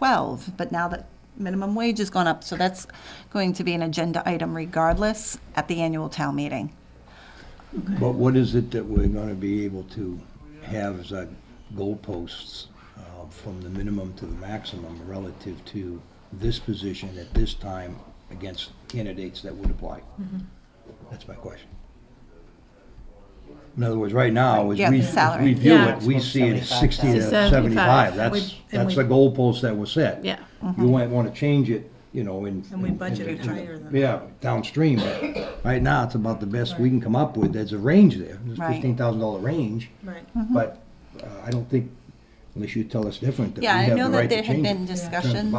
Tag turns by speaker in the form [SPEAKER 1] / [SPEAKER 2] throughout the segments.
[SPEAKER 1] twelve, but now that minimum wage has gone up, so that's going to be an agenda item regardless at the annual town meeting.
[SPEAKER 2] But what is it that we're gonna be able to have as our goalposts uh, from the minimum to the maximum relative to this position at this time against candidates that would apply? That's my question. In other words, right now, as
[SPEAKER 1] Yeah, the
[SPEAKER 2] we, as
[SPEAKER 1] salary.
[SPEAKER 2] we view
[SPEAKER 3] Yeah.
[SPEAKER 2] it, we see it as sixty to
[SPEAKER 3] To 75.
[SPEAKER 2] seventy-five. That's,
[SPEAKER 3] We- and
[SPEAKER 2] that's
[SPEAKER 3] we-
[SPEAKER 2] the goalpost that was set.
[SPEAKER 3] Yeah.
[SPEAKER 2] You might wanna change it, you know, in.
[SPEAKER 4] And we
[SPEAKER 2] in- in-
[SPEAKER 4] budgeted
[SPEAKER 2] in the-
[SPEAKER 4] higher than that.
[SPEAKER 2] Yeah, downstream, but right now, it's about the best we can come up with, there's a range there, there's
[SPEAKER 1] Right. Mm-hmm.
[SPEAKER 2] fifteen thousand dollar range,
[SPEAKER 4] Right.
[SPEAKER 2] but uh, I don't think, unless you tell us different, that we
[SPEAKER 1] Yeah, I
[SPEAKER 2] have the
[SPEAKER 1] know that
[SPEAKER 2] right to
[SPEAKER 1] there had
[SPEAKER 2] change
[SPEAKER 1] been
[SPEAKER 2] it.
[SPEAKER 1] discussions.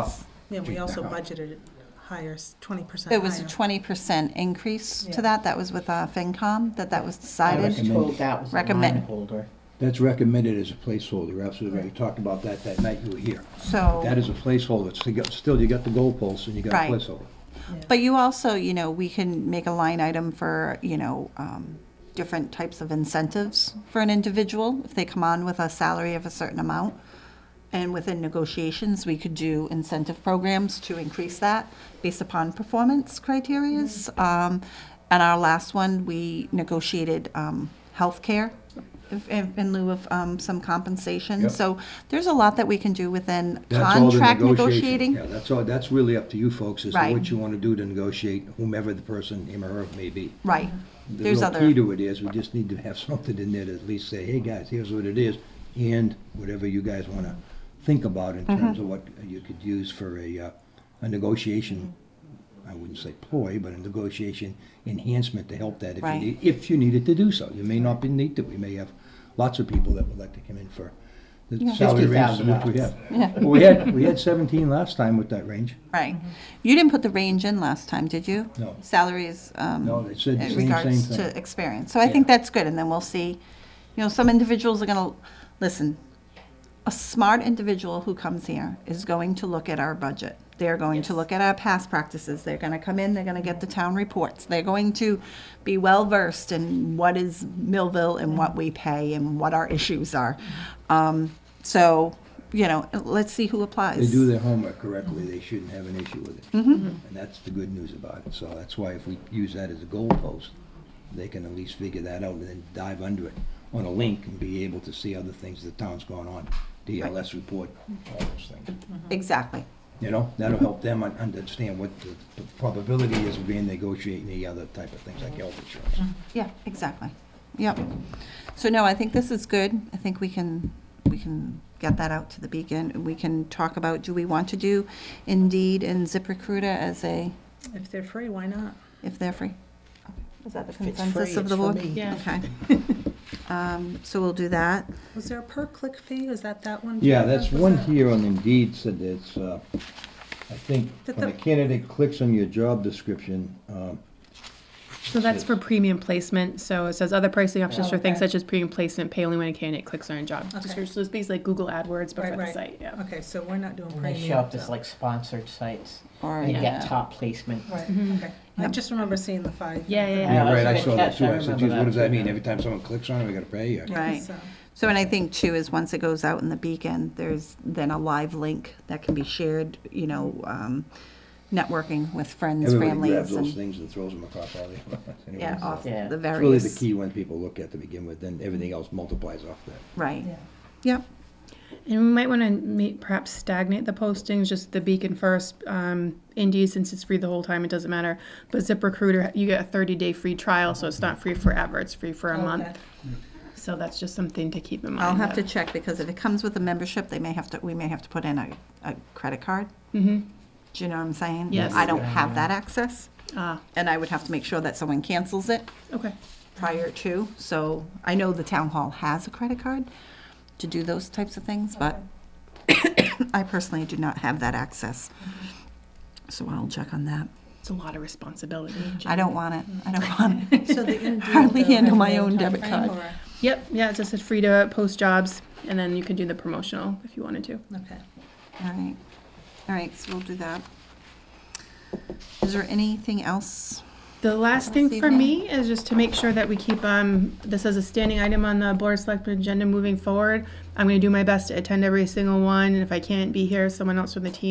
[SPEAKER 4] Yeah, we
[SPEAKER 2] Check
[SPEAKER 4] also
[SPEAKER 2] that out.
[SPEAKER 4] budgeted it higher, twenty percent
[SPEAKER 1] There was a twenty percent increase to
[SPEAKER 4] Yeah.
[SPEAKER 1] that, that was with uh, FinCom, that that was
[SPEAKER 3] I
[SPEAKER 1] decided.
[SPEAKER 3] was told that was a
[SPEAKER 1] Recommend.
[SPEAKER 3] line holder.
[SPEAKER 2] That's recommended as a placeholder, you're absolutely right, we talked about that that night you were here. That
[SPEAKER 1] So,
[SPEAKER 2] is a placeholder, It's- you got- still, you got the goalposts and you got
[SPEAKER 1] Right.
[SPEAKER 2] a placeholder.
[SPEAKER 1] but you also, you know, we can make a line item for, you know, um, different types of incentives for an individual if they come on with a salary of a certain amount. And within negotiations, we could do incentive programs to increase that based upon performance criterias.
[SPEAKER 2] Mm-hmm.
[SPEAKER 1] Um, and our last one, we negotiated, um, healthcare if- in in lieu of, um, some compensation.
[SPEAKER 2] Yep.
[SPEAKER 1] So there's a lot that we can do within
[SPEAKER 2] That's all the
[SPEAKER 1] contract
[SPEAKER 2] negotiation.
[SPEAKER 1] negotiating.
[SPEAKER 2] Yeah, that's all, that's really up to you folks, as to
[SPEAKER 1] Right.
[SPEAKER 2] what you want to do to negotiate whomever the person, him or her may be.
[SPEAKER 1] Right.
[SPEAKER 2] The
[SPEAKER 1] There's
[SPEAKER 2] real
[SPEAKER 1] other.
[SPEAKER 2] Mm-hmm. key to it is, we just need to have something in there to at least say, hey, guys, here's what it is, and whatever you guys want to think about in
[SPEAKER 1] Mm-hmm.
[SPEAKER 2] terms of what you could use for a, uh, a negotiation, I wouldn't say ploy, but a negotiation enhancement to help that if you
[SPEAKER 1] Right.
[SPEAKER 2] need, if you needed to do so. You may not be need to, we may have lots of people that would like to come in for the salary ranges
[SPEAKER 3] $50,000.
[SPEAKER 2] which we have. Well, We had, we had seventeen last time with that range.
[SPEAKER 1] Right. You didn't put the range in last time, did you?
[SPEAKER 2] No.
[SPEAKER 1] Salaries, um.
[SPEAKER 2] No, they said the
[SPEAKER 1] in
[SPEAKER 2] same-
[SPEAKER 1] regards
[SPEAKER 2] same thing.
[SPEAKER 1] to experience. So I think
[SPEAKER 2] Yeah.
[SPEAKER 1] that's good, and then we'll see, you know, some individuals are gonna, listen, a smart individual who comes here is going to look at our budget. They're going to look at our past practices. They're gonna come in, they're gonna get the town reports. They're going to be well-versed in what is Millville and what we pay and what our issues are. Um, so, you know, let's see who applies.
[SPEAKER 2] They do their homework correctly, they shouldn't have an issue with it.
[SPEAKER 4] Mm-hmm.
[SPEAKER 2] And that's the good news about it, so that's why if we use that as a goalpost, they can at least figure that out and then dive under it on a link and be able to see other things the town's gone on, DLS report, all those things.
[SPEAKER 1] Exactly.
[SPEAKER 2] You know, that'll help them un- understand what the the probability is of being negotiating the other type of things like health
[SPEAKER 4] Mm-hmm.
[SPEAKER 2] insurance.
[SPEAKER 1] Yeah, exactly. Yep. So no, I think this is good. I think we can, we can get that out to the beacon. We can talk about, do we want to do Indeed and ZipRecruiter as a,
[SPEAKER 4] If they're free, why not?
[SPEAKER 1] if they're free? Is that the
[SPEAKER 3] it's
[SPEAKER 1] consensus
[SPEAKER 3] free,
[SPEAKER 1] of the
[SPEAKER 3] it's for
[SPEAKER 1] board?
[SPEAKER 3] me.
[SPEAKER 1] Yeah. Okay. Um, So we'll do that.
[SPEAKER 4] Was there a per click fee? Is that that one?
[SPEAKER 2] Yeah,
[SPEAKER 4] Jennifer?
[SPEAKER 2] that's
[SPEAKER 4] Was
[SPEAKER 2] one
[SPEAKER 4] that-
[SPEAKER 2] here on Indeed said that it's, uh, I think,
[SPEAKER 4] That
[SPEAKER 2] when a
[SPEAKER 4] the-
[SPEAKER 2] candidate clicks on your job description, um,
[SPEAKER 5] So that's for premium placement. So it says other pricing options for things
[SPEAKER 4] Oh, Okay.
[SPEAKER 5] such as premium placement, pay only when a candidate clicks on a job
[SPEAKER 4] Okay.
[SPEAKER 5] description. So it's basically like Google AdWords, but
[SPEAKER 4] Right,
[SPEAKER 5] for the
[SPEAKER 4] right.
[SPEAKER 5] site. Yeah.
[SPEAKER 4] Okay, so we're not doing
[SPEAKER 3] And
[SPEAKER 4] premium.
[SPEAKER 3] they show up as
[SPEAKER 4] so-
[SPEAKER 3] like sponsored sites.
[SPEAKER 1] Or,
[SPEAKER 3] You
[SPEAKER 1] yeah.
[SPEAKER 3] get top placement.
[SPEAKER 4] Right,
[SPEAKER 1] Mm-hmm.
[SPEAKER 4] okay. I just remember seeing the five.
[SPEAKER 5] Yeah, yeah, yeah.
[SPEAKER 2] Yeah,
[SPEAKER 3] Yeah,
[SPEAKER 2] right, I
[SPEAKER 3] that's
[SPEAKER 2] saw
[SPEAKER 3] what
[SPEAKER 2] that
[SPEAKER 3] I
[SPEAKER 2] too. I
[SPEAKER 3] catch.
[SPEAKER 2] said,
[SPEAKER 3] I remember
[SPEAKER 2] geez, what
[SPEAKER 3] that
[SPEAKER 2] does that
[SPEAKER 3] too,
[SPEAKER 2] mean?
[SPEAKER 3] yeah.
[SPEAKER 2] Every time someone clicks on it, we gotta pay?
[SPEAKER 4] Yeah,
[SPEAKER 1] Right.
[SPEAKER 4] so-
[SPEAKER 1] So, and I think too is once it goes out in the beacon, there's then a live link that can be shared, you know, um, networking with friends,
[SPEAKER 2] Everybody
[SPEAKER 1] families
[SPEAKER 2] grabs those
[SPEAKER 1] and,
[SPEAKER 2] things and throws them across all the. anyway,
[SPEAKER 1] yeah,
[SPEAKER 2] so
[SPEAKER 1] off
[SPEAKER 3] Yeah.
[SPEAKER 1] the
[SPEAKER 2] It's really
[SPEAKER 1] various.
[SPEAKER 2] the key when people look at to begin with, then everything else multiplies off that.
[SPEAKER 1] Right. Yep.
[SPEAKER 5] And we might want to perhaps stagnate the postings, just the Beacon first. Um, Indeed, since it's free the whole time, it doesn't matter. But ZipRecruiter, you get a 30 day free trial, so it's not free forever. It's free for a month.
[SPEAKER 4] Okay.
[SPEAKER 5] So that's just something to keep in mind.
[SPEAKER 1] I'll have to
[SPEAKER 5] that-
[SPEAKER 1] check because if it comes with a membership, they may have to, we may have to put in a, a credit card.
[SPEAKER 5] Mhm.
[SPEAKER 1] Do you know what I'm saying?
[SPEAKER 5] Yes.
[SPEAKER 1] I don't have that access
[SPEAKER 5] Ah,
[SPEAKER 1] and I would have to make sure that someone cancels it
[SPEAKER 5] okay.
[SPEAKER 1] prior to. So I know the town hall has a credit card to do those types of things, but I personally do not have that access. So I'll check on that.
[SPEAKER 5] It's a lot of responsibility.
[SPEAKER 1] I don't want it. I don't want it.
[SPEAKER 4] So the Indeed.
[SPEAKER 1] Hardly
[SPEAKER 4] though,
[SPEAKER 1] handle my
[SPEAKER 4] has no
[SPEAKER 1] own debit
[SPEAKER 4] timeframe,
[SPEAKER 1] card.
[SPEAKER 5] Yep. Yeah, it's just it's free to post jobs, and then you can do the promotional if you wanted to.
[SPEAKER 4] or- Okay.
[SPEAKER 1] All right. All right, so we'll do that. Is there anything else?
[SPEAKER 5] The The last thing for me is just to make sure that we keep um, this as a standing item on the Board of Selectmen agenda moving forward. I'm going to do my best to attend every single one, and if I can't be here, someone else from the team